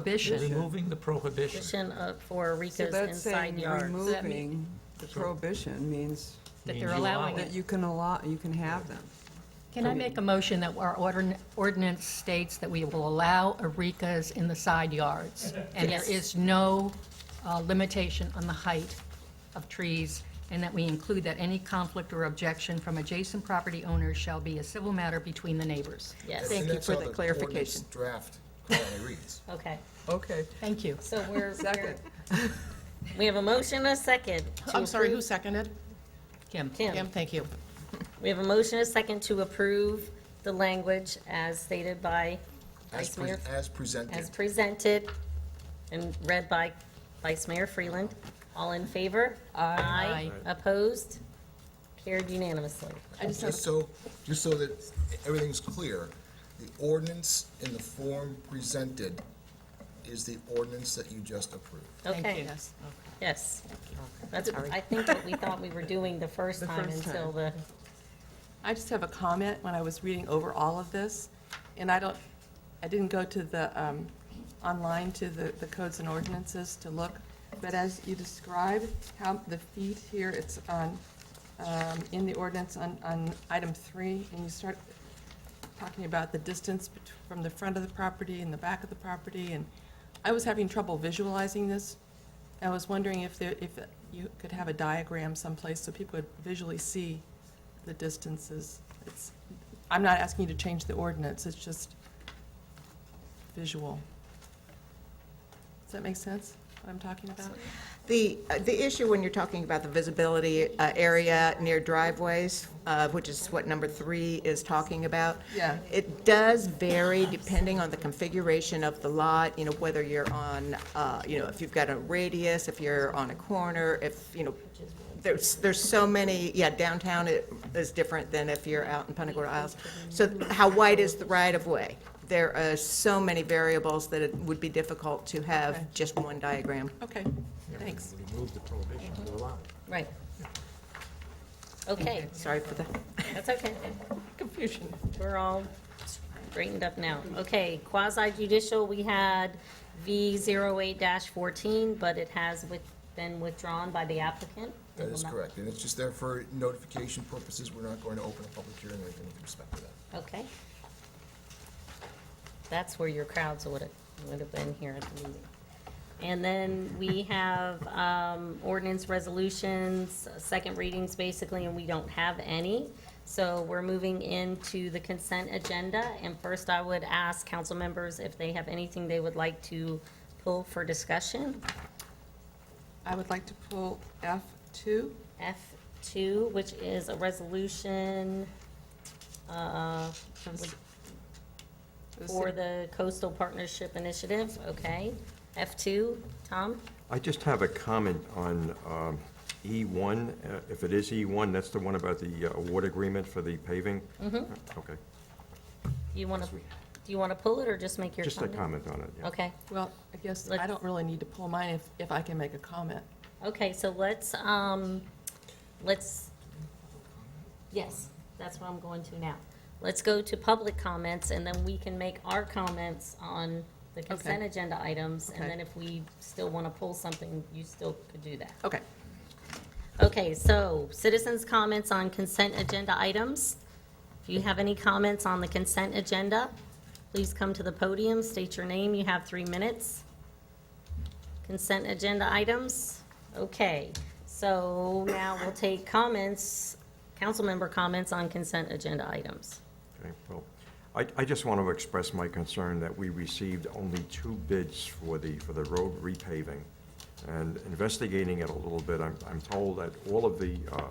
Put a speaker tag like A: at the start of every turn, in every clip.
A: prohibition.
B: Removing the prohibition.
C: Addition of- for
D: So
C: Rika's
D: that's
C: inside
D: saying
C: yards.
A: that mean-
D: removing the prohibition means
A: That
B: means
A: they're
B: you
A: allowing
B: allow
A: it.
D: that you can allow, you can have them.
A: Can I make a motion that our ordin- ordinance states that we will allow Eureka's in the side yards? And there
C: Yes.
A: is no uh, limitation on the height of trees, and that we include that any conflict or objection from adjacent property owners shall be a civil matter between the neighbors.
C: Yes.
A: Thank you
E: That's
A: for
E: how
A: the
E: ordinance
A: clarification.
E: Draft currently reads.
C: Okay,
D: Okay.
A: Thank you.
C: so we're, we're,
D: Second.
C: we have a motion, and a second. to
F: I'm sorry, who
C: approve-
F: seconded?
A: Kim?
C: Kim,
F: Kim, thank you.
C: we have a motion, and a second to approve the language as stated by Vice
E: As uh, pre-
C: Mayor,
E: as presented.
C: as presented and read by Vice Mayor Freeland. All in favor? Aye. Opposed? Carried unanimously.
F: I just have
E: Just so, just so that everything's clear, the ordinance in the form presented is the ordinance that you just approved.
C: Okay,
F: Yes, okay.
C: yes. That's, I think what we thought we were doing the first
D: The
C: time
D: first
C: until
D: time.
C: the,
F: I just have a comment when I was reading over all of this, and I don't, I didn't go to the, um, online to the, the codes and ordinances to look, but as you describe how the feet here, it's on, um, in the ordinance on, on item three, and you start talking about the distance bet- from the front of the property and the back of the property, and I was having trouble visualizing this. I was wondering if there, if you could have a diagram someplace so people could visually see the distances. It's, I'm not asking you to change the ordinance, it's just visual. Does that make sense, what I'm talking about?
G: The, uh, the issue when you're talking about the visibility uh, area near driveways, uh, which is what number three is talking about.
F: Yeah.
G: It does vary depending on the configuration of the lot, you know, whether you're on, uh, you know, if you've got a radius, if you're on a corner, if, you know, there's, there's so many, yeah, downtown i- is different than if you're out in Punta Gorda Isles. So how wide is the right-of-way? There are so many variables that it would be difficult to
F: Okay.
G: have just one diagram.
F: Okay, thanks.
B: Remove the prohibition to allow it.
C: right. Okay,
G: Sorry for the
C: that's okay.
F: Confusion.
C: We're all straightened up now. Okay, quasi judicial, we had V zero eight fourteen, but it has with- been withdrawn by the applicant.
E: That is correct, and it's just there for notification purposes, we're not going to open a public hearing or anything with respect to that.
C: Okay. That's where your crowds would have, would have been here at the meeting. And then we have um, ordinance resolutions, second readings basically, and we don't have any. So we're moving into the consent agenda. And first, I would ask council members if they have anything they would like to pull for discussion.
F: I would like to pull F two.
C: F2, which is a resolution uh, for the Coastal Partnership Initiative, okay? F2, Tom?
H: I just have a comment on um, E1. Uh, If it is E1, that's the one about the uh, award agreement for the paving? Mm-hmm. Okay.
C: Do you want to, do you want to pull it or just make your
H: Just a
C: comment?
H: comment on it, yeah.
C: Okay,
F: Well, I guess I
C: Let's-
F: don't really need to pull mine if, if I can make a comment.
C: okay, so let's, um, let's, yes, that's what I'm going to now. Let's go to public comments, and then we can make our comments on the consent agenda items, and
F: Okay.
C: then if we still want to pull something, you still could do that.
F: Okay.
C: Okay, so citizens' comments on consent agenda items. If you have any comments on the consent agenda, please come to the podium, state your name, you have three minutes. Consent agenda items, okay. So now we'll take comments, council member comments on consent agenda items.
H: Okay, well, I, I just want to express my concern that we received only two bids for the, for the road repaving. And investigating it a little bit, I'm, I'm told that all of the, uh,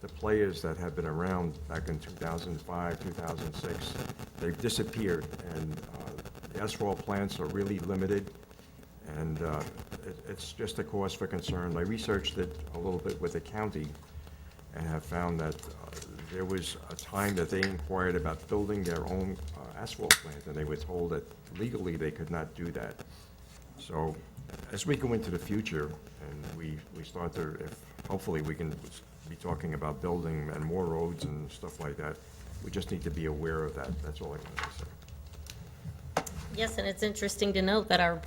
H: the players that have been around back in 2005, 2006, they've disappeared, and uh, the asphalt plants are really limited, and uh, it, it's just a cause for concern. I researched it a little bit with the county, and have found that uh, there was a time that they inquired about building their own uh, asphalt plant, and they were told that legally they could not do that. So as we go into the future, and we, we start to, if, hopefully, we can be talking about building and more roads and stuff like that, we just need to be aware of that, that's all I wanted to say.
C: Yes, and it's interesting to note that our